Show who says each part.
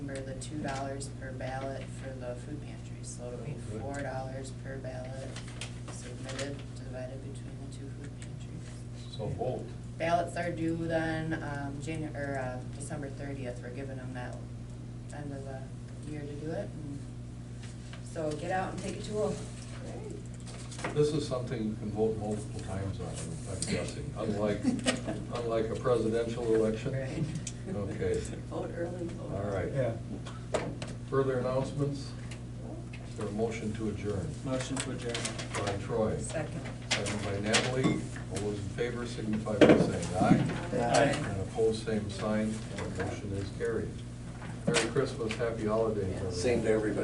Speaker 1: for the two dollars per ballot for the food pantry. So it'll be
Speaker 2: Good.
Speaker 1: four dollars per ballot submitted, divided between the two food pantries.
Speaker 2: So bold.
Speaker 1: Ballots are due then, um, Janu- or, uh, December thirtieth, we're giving them that end of the year to do it. and So get out and take a tool.
Speaker 2: This is something you can vote multiple times on, I'm guessing, unlike, unlike a presidential election.
Speaker 1: Right.
Speaker 2: Okay.
Speaker 1: Vote early, vote.
Speaker 2: All right.
Speaker 3: Yeah.
Speaker 2: Further announcements? Is there a motion to adjourn?
Speaker 4: Motion to adjourn.
Speaker 2: By Troy,
Speaker 1: Second.
Speaker 2: second by Natalie. All those in favor signify by saying aye.
Speaker 4: Aye.
Speaker 2: And opposed, same sign. Motion is carried. Merry Christmas, happy holidays. everyone.
Speaker 5: Same to everybody.